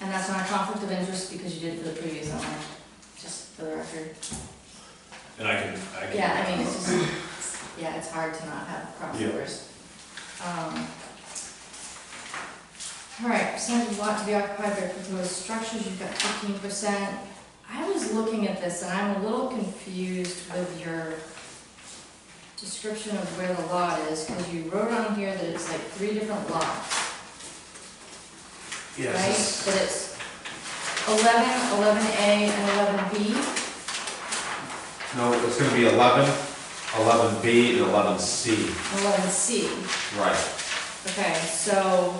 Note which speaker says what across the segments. Speaker 1: that's not a conflict of interest because you did it for the previous owner, just for the record.
Speaker 2: And I can, I can.
Speaker 1: Yeah, I mean, it's just, yeah, it's hard to not have crossovers. Um, All right, percentage of lot to be occupied by proposed structures, you've got fifteen percent. I was looking at this and I'm a little confused with your description of where the lot is, because you wrote on here that it's like three different lots. right?
Speaker 2: Yes.
Speaker 1: That it's 11, 11A, and 11B.
Speaker 3: No, it's gonna be eleven, eleven B, and eleven C.
Speaker 1: 11C.
Speaker 3: Right.
Speaker 1: Okay, so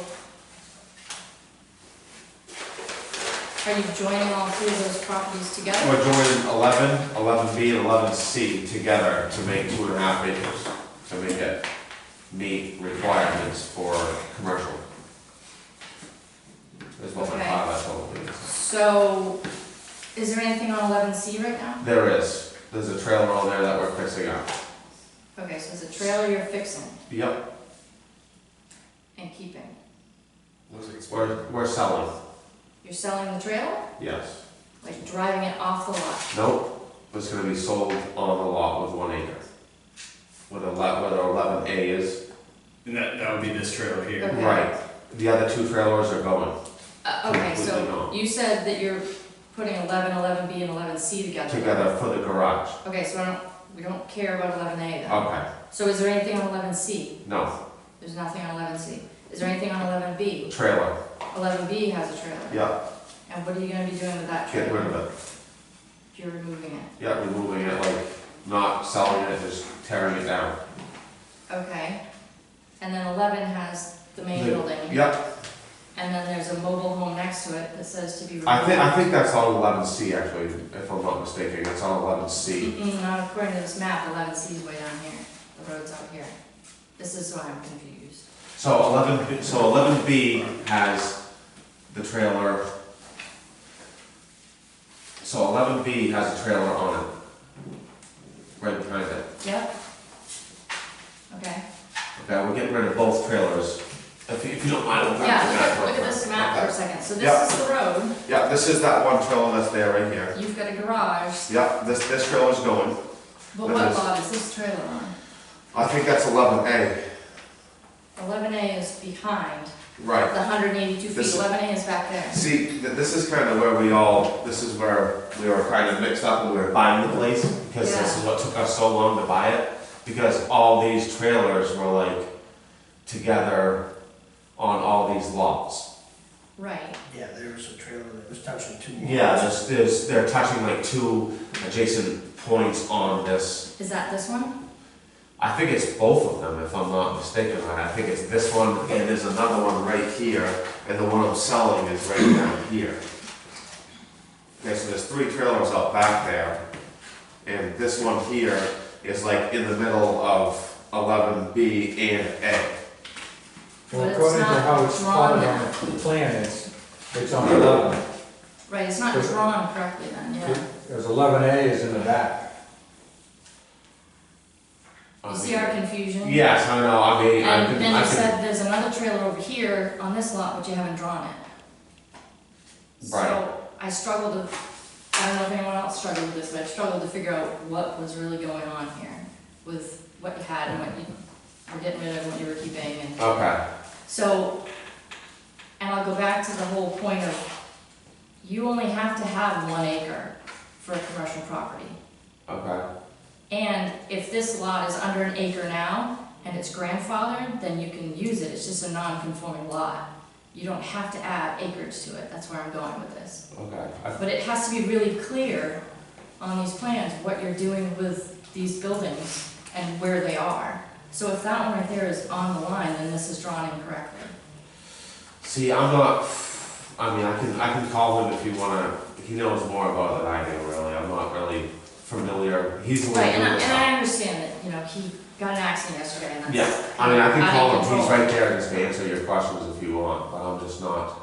Speaker 1: are you joining all three of those properties together?
Speaker 3: We're joining eleven, eleven B, and eleven C together to make two and a half acres, to make it meet requirements for commercial. That's what my
Speaker 1: Okay.
Speaker 3: father told me.
Speaker 1: So is there anything on 11C right now?
Speaker 3: There is, there's a trailer on there that we're fixing up.
Speaker 1: Okay, so it's a trailer you're fixing
Speaker 3: Yep.
Speaker 1: and keeping.
Speaker 3: We're, we're selling,
Speaker 1: You're selling the trailer,
Speaker 3: yes.
Speaker 1: like driving it off the lot.
Speaker 3: Nope, it's gonna be sold on the lot with one acre. With a lot, whether eleven A is
Speaker 2: And that, that would be this trailer here.
Speaker 1: Okay.
Speaker 3: Right, the other two trailers are going,
Speaker 1: Uh, Okay,
Speaker 3: Completely
Speaker 1: so
Speaker 3: not.
Speaker 1: you said that you're putting 11, 11B, and 11C together.
Speaker 3: together for the garage.
Speaker 1: Okay, so I don't, we don't care about eleven A then.
Speaker 3: Okay,
Speaker 1: So is there anything on eleven C?
Speaker 3: no,
Speaker 1: There's nothing on eleven C. Is there anything on eleven B?
Speaker 3: trailer,
Speaker 1: Eleven B has a trailer.
Speaker 3: yeah,
Speaker 1: And what are you gonna be doing with that trailer?
Speaker 3: get rid of it,
Speaker 1: You're removing it.
Speaker 3: yeah, removing it, like, not selling it, just tearing it down.
Speaker 1: Okay. And then eleven has the main
Speaker 3: The-
Speaker 1: building.
Speaker 3: Yep,
Speaker 1: And then there's a mobile home next to it that says to be removed.
Speaker 3: I think, I think that's on eleven C actually, if I'm not mistaken, it's on eleven C.
Speaker 1: Mm-mm, Mm, not according to this map, eleven C is way down here. The road's out here. This is why I'm confused.
Speaker 3: So eleven, so eleven B has the trailer. So eleven B has a trailer on it, right behind it.
Speaker 1: Yep. Okay.
Speaker 3: Okay, we're getting rid of both trailers. If you, if you don't mind, I'll grab the
Speaker 1: Yeah,
Speaker 3: back
Speaker 1: look
Speaker 3: one
Speaker 1: at this
Speaker 3: first.
Speaker 1: map for a
Speaker 3: Okay.
Speaker 1: second. So
Speaker 3: Yeah.
Speaker 1: this is the road.
Speaker 3: Yeah, this is that one trailer that's there right here.
Speaker 1: You've got a garage,
Speaker 3: Yeah, this, this trailer's going.
Speaker 1: but what
Speaker 3: That is-
Speaker 1: lot is this trailer on?
Speaker 3: I think that's eleven A.
Speaker 1: Eleven A is behind, the
Speaker 3: Right.
Speaker 1: hundred and eighty-two feet,
Speaker 3: This-
Speaker 1: eleven A is back there.
Speaker 3: See, th- this is kind of where we all, this is where we were kind of mixed up when we were buying the place, because this is what took us so long to buy it. Because all these trailers were like together on all these lots.
Speaker 1: Right,
Speaker 4: Yeah, there was a trailer that was touching two.
Speaker 3: Yeah, there's, there's, they're touching like two adjacent points on this
Speaker 1: is that this one?
Speaker 3: I think it's both of them, if I'm not mistaken, right? I think it's this one, and there's another one right here, and the one I'm selling is right down here. Okay, so there's three trailers out back there, and this one here is like in the middle of eleven B and A.
Speaker 1: But
Speaker 5: Well,
Speaker 1: it's
Speaker 5: according to
Speaker 1: not
Speaker 5: how it's
Speaker 1: drawn
Speaker 5: plotted
Speaker 1: out.
Speaker 5: on the plan, it's, it's on eleven.
Speaker 1: Right, it's not
Speaker 5: This-
Speaker 1: drawn correctly then, yeah.
Speaker 5: There's eleven A is in the back.
Speaker 3: I
Speaker 1: You
Speaker 3: mean-
Speaker 1: see our confusion?
Speaker 3: Yes, I know, I mean, I
Speaker 1: And
Speaker 3: can,
Speaker 1: then
Speaker 3: I
Speaker 1: you
Speaker 3: can,
Speaker 1: said there's another trailer over here on this lot, but you haven't drawn it.
Speaker 3: Right.
Speaker 1: So I struggled to, I don't know if anyone else struggled with this, but I struggled to figure out what was really going on here with what you had and what you were getting rid of, what you were keeping and.
Speaker 3: okay,
Speaker 1: So, and I'll go back to the whole point of, you only have to have one acre for a commercial property.
Speaker 3: okay,
Speaker 1: And if this lot is under an acre now and it's grandfathered, then you can use it, it's just a non-conforming lot. You don't have to add acreage to it, that's where I'm going with this.
Speaker 3: okay. I-
Speaker 1: But it has to be really clear on these plans what you're doing with these buildings and where they are. So if that one right there is on the line, then this is drawn incorrectly.
Speaker 3: See, I'm not, I mean, I can, I can call him if you wanna, he knows more about it than I do, really, I'm not really familiar, he's a little.
Speaker 1: Right, and I,
Speaker 3: bit-
Speaker 1: and I understand that, you know, he got in an accident yesterday and that's.
Speaker 3: Yeah, I mean, I can
Speaker 1: out of
Speaker 3: call him,
Speaker 1: control.
Speaker 3: he's right there, and just answer your questions if you want, but I'm just not.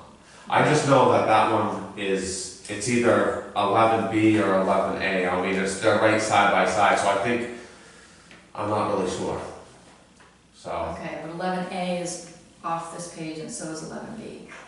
Speaker 3: I just know that that one is, it's either eleven B or eleven A, I mean, it's, they're right side by side, so I think, I'm not really sure. So.
Speaker 1: Okay, but eleven A is off this page and so is eleven B.